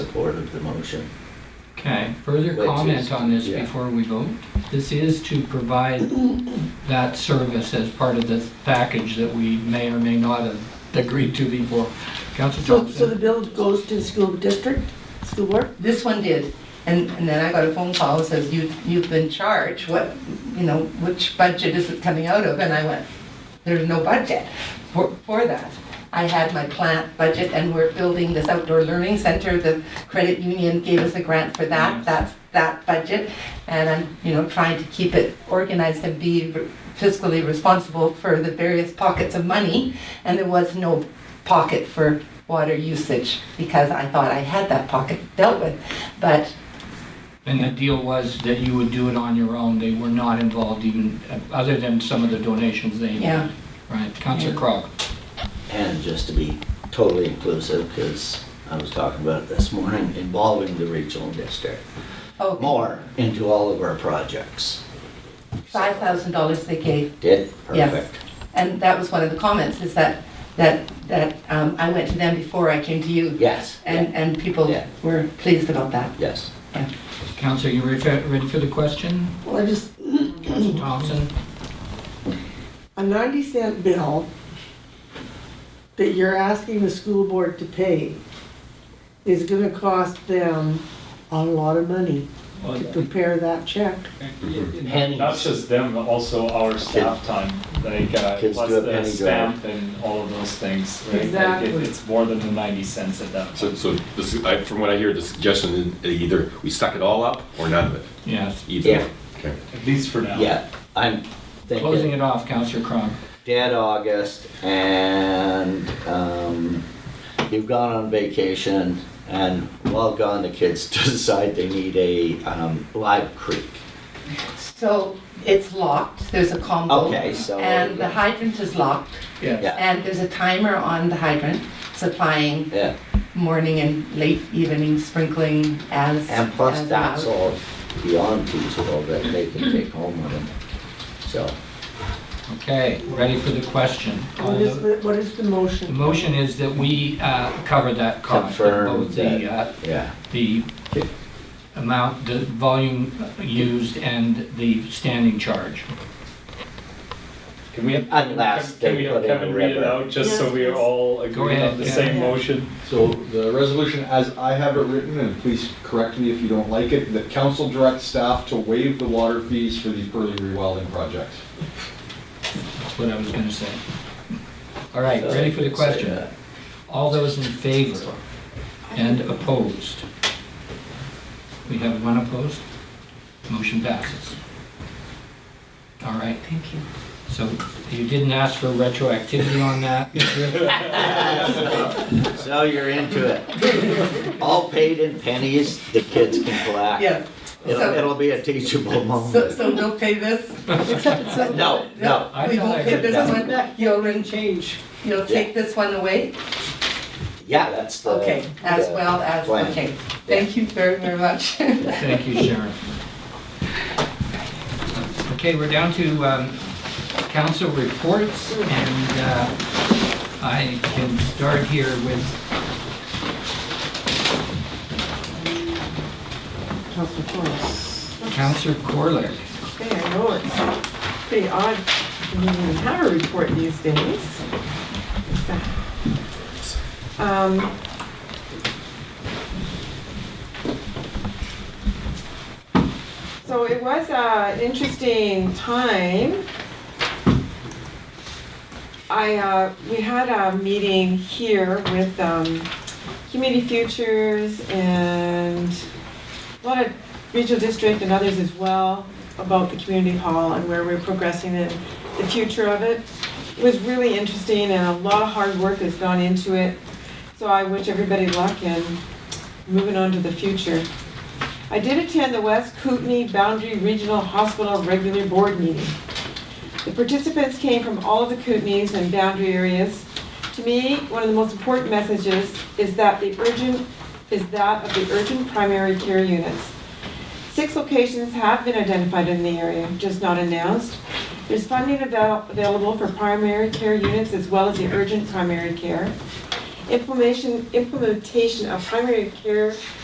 support of the motion. Okay, further Which is- comment on this yeah. before we vote? This is to provide that service as part of this package that we may or may not have agreed to before. Council So, so the Thompson? bill goes to the school district, school board? This one did, and, and then I got a phone call that says, you, you've been charged, what, you know, which budget is it coming out of? And I went, there's no budget for, for that. I had my plant budget and we're building this outdoor learning center, the credit union gave us a grant for that, that's that budget. And I'm, you know, trying to keep it organized and be fiscally responsible for the various pockets of money. And there was no pocket for water usage because I thought I had that pocket dealt with. But And the deal was that you would do it on your own. They were not involved even, uh, other than some of the donations they yeah, made. Right, Council Yeah. Crog? And just to be totally inclusive, because I was talking about it this morning, involving the regional district oh, more into all of our projects. five thousand dollars they gave Did, Yes. perfect. And that was one of the comments, is that, that, that um, I went to them before I came to you. Yes, And, and people Yeah. were pleased about that. yes. Council, you ready for- ready for the question? Well, I just, Mm-hmm. Council Thompson? a ninety cent bill that you're asking the school board to pay is gonna cost them a lot of money Well, to prepare that check. Pennies. Not just them, but also our staff time, like, uh, Kids plus do a the penny stamp and all of those things, right? Like, it- Exactly. It's more than the ninety cents at that point. So, so this, I, from what I hear, the suggestion is either we suck it all up or none of it, Yes. either. Yeah. Okay. At least for now. Yeah, I'm Closing thinking it off, Council Crog. dead August and, um, you've gone on vacation and while gone, the kids decide they need a, um, live creek. So it's locked, there's a combo. Okay, so. And the hydrant is locked, Yeah. and there's a timer on the hydrant supplying Yeah, morning and late evening sprinkling as. and plus as that's allowed. all beyond teachable that they can take home with them. So, Okay, ready for the question? All What is, tho- the what is the motion? The motion is that we uh, cover that cost. Confirm both the, uh, yeah, The amount, the volume used and the standing charge. Can we have? Unless can- can they we have put in a Kevin read it river. out, just so Yes, we are yes. all agreed ahead, on the Kevin. same Yeah. motion? So the resolution, as I have it written, and please correct me if you don't like it, that council directs staff to waive the water fees for the early rewilding project. That's what I was going to say. All right, so ready for the say question? that. All those in favor and opposed? We have one opposed? Motion passes. All right, Thank you. so you didn't ask for retroactivity on that? So you're into it. All paid in pennies, the kids can collect. Yes, It'll, So- it'll be a teachable so, moment. so we'll pay this? No, no, I We thought I won't pay heard this that. one, you'll, change. You'll take this one away? yeah, that's the. Okay, as the well as, plan. okay. Thank you very, very much. Thank you, Sharon. Okay, we're down to um, council reports, and uh, I can start here with, Councilor Forrest. Councilor Corlick. Okay, I know it's pretty odd to even have a report these days. Um, So it was an interesting time. I, uh, we had a meeting here with um, Community Futures and a lot of regional district and others as well about the community hall and where we're progressing and the future of it. It was really interesting and a lot of hard work has gone into it. So I wish everybody luck and moving on to the future. I did attend the West Kootenai Boundary Regional Hospital regular board meeting. The participants came from all of the Kootenays and boundary areas. To me, one of the most important messages is that the urgent, is that of the urgent primary care units. Six locations have been identified in the area, just not announced. There's funding avail- available for primary care units as well as the urgent primary care. Implementation, implementation of primary care